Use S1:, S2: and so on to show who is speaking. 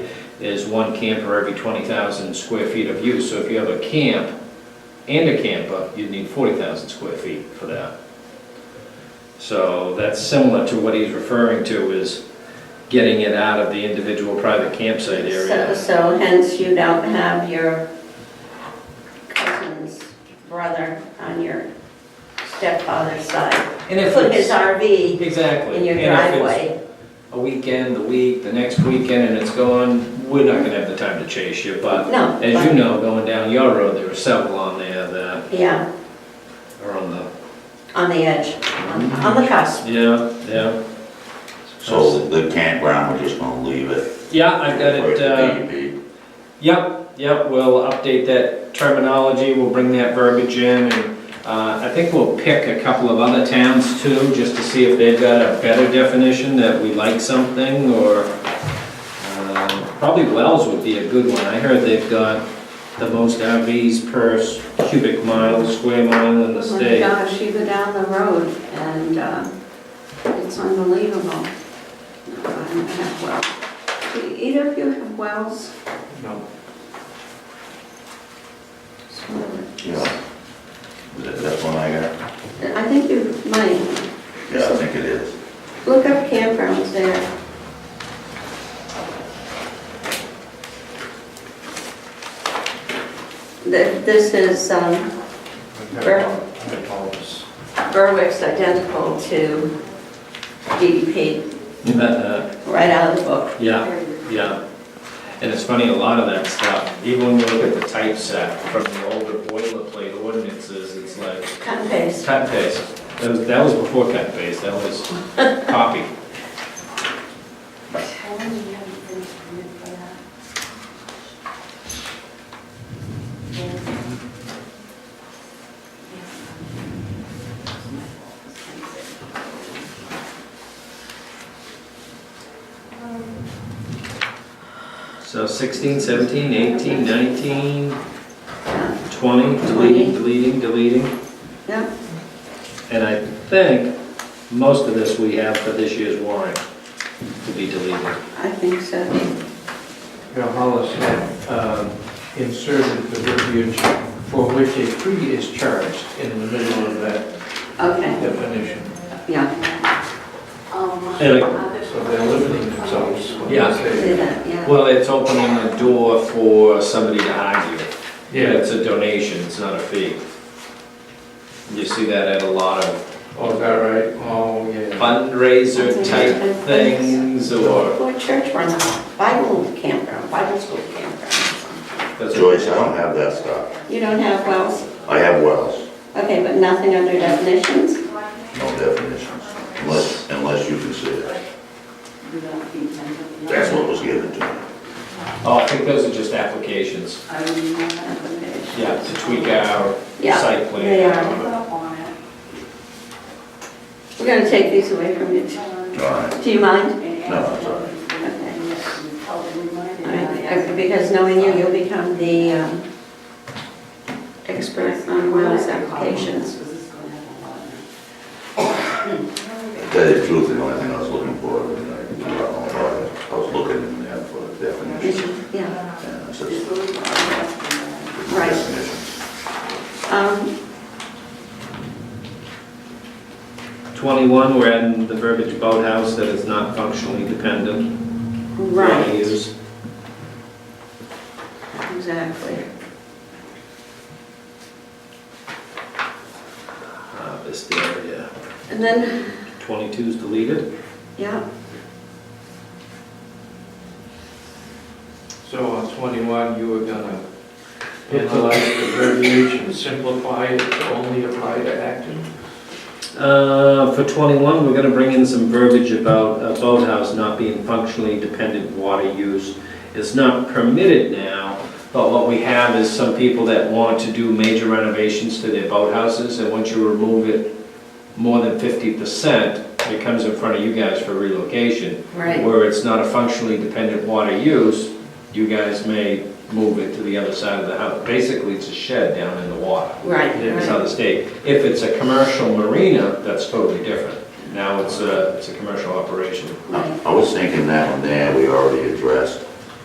S1: is one camper every 20,000 square feet of use. So if you have a camp and a camper, you'd need 40,000 square feet for that. So that's similar to what he's referring to is getting it out of the individual private campsite
S2: So
S1: area.
S2: so hence you don't have your cousin's brother on your stepfather's side.
S1: And if
S2: Put his
S1: it's,
S2: RV
S1: exactly.
S2: in your
S1: And if it's
S2: driveway.
S1: A weekend, the week, the next weekend, and it's gone, we're not gonna have the time to chase you, but
S2: No.
S1: as you know, going down your road, there are several on there that
S2: Yeah,
S1: are on the,
S2: on the edge, on on the cusp.
S1: yeah, yeah.
S3: So the campground, we're just gonna leave it.
S1: Yeah, I've got
S3: for
S1: it,
S3: the
S1: uh,
S3: DEP.
S1: Yep, yep, we'll update that terminology, we'll bring that verbiage in, and uh, I think we'll pick a couple of other towns too, just to see if they've got a better definition, that we like something, or, um, probably Wells would be a good one, I heard they've got the most RVs per s- cubic mile, square mile in the
S4: Oh my
S1: state.
S4: gosh, you go down the road and uh, it's unbelievable. No, I don't have wells. Do either of you have wells?
S1: No.
S3: Yeah. That- That's one I got.
S4: I think you might.
S3: Yeah, I think it is.
S4: Look up campgrounds there.
S2: Th- This is, um, Ber- Berwick's identical to DDP, right out of the book.
S1: Yeah. Yeah, and it's funny, a lot of that stuff, even when you look at the typeset from the older boilerplate ordinances, it's like
S2: Cut and paste.
S1: cut and paste. That was, that was before cut and paste, that was copy. So 16, 17, 18, 19, 20, deleting,
S2: Twenty.
S1: deleting, deleting.
S2: Yeah.
S1: And I think most of this we have for this year's warrant to be deleted.
S2: I think so.
S5: Now Hollis had um, inserted the verbiage for which a fee is charged in the middle of that
S2: Okay,
S5: definition.
S2: yeah,
S1: And,
S5: So they're limiting themselves when
S1: Yeah.
S5: they say.
S2: do that, yeah.
S1: Well, it's opening the door for somebody to argue. Yeah,
S5: Yeah,
S1: it's a donation, it's not a fee. You see that at a lot of
S5: oh, is that right? Oh, yeah.
S1: fundraiser type things or.
S2: Or church run, Bible campground, Bible school campground.
S1: that's what-
S3: Joyce, I don't have that stuff.
S2: You don't have wells?
S3: I have wells,
S2: Okay, but nothing under definitions?
S3: no definitions, unless, unless you consider it. That's what was given to me.
S1: Oh, I think those are just applications, yeah, to tweak our
S2: Yeah,
S1: site plan.
S2: they are. we're gonna take these away from you.
S3: All right,
S2: Do you mind?
S3: no, it's all right.
S2: All right, uh, Because knowing you, you'll become the um, expert on wells applications.
S3: To Tell you the truth, the only thing I was looking for, when I do our own audit, I was looking in there for definitions.
S2: Yeah,
S3: And I said,
S2: right.
S3: definitions.
S2: Um,
S1: Twenty-one, we're adding the verbiage boathouse that is not functionally dependent. for
S2: Right.
S1: use.
S2: Exactly.
S1: Harvest uh, area,
S2: And then,
S1: twenty-two's deleted.
S2: yeah,
S5: So on 21, you were gonna analyze the verbiage and simplify it to only apply to Acton?
S1: Uh, for twenty-one, we're gonna bring in some verbiage about a boathouse not being functionally dependent water use. It's not permitted now, but what we have is some people that want to do major renovations to their boathouses, and once you remove it more than fifty percent, it comes in front of you guys for relocation.
S2: right.
S1: Where it's not a functionally dependent water use, you guys may move it to the other side of the house. Basically, it's a shed down in the water.
S2: Right,
S5: Yeah,
S1: It's
S2: right.
S1: not the state. If it's a commercial marina, that's totally different. Now it's a, it's a commercial operation.
S3: I I was thinking that one there, we already addressed,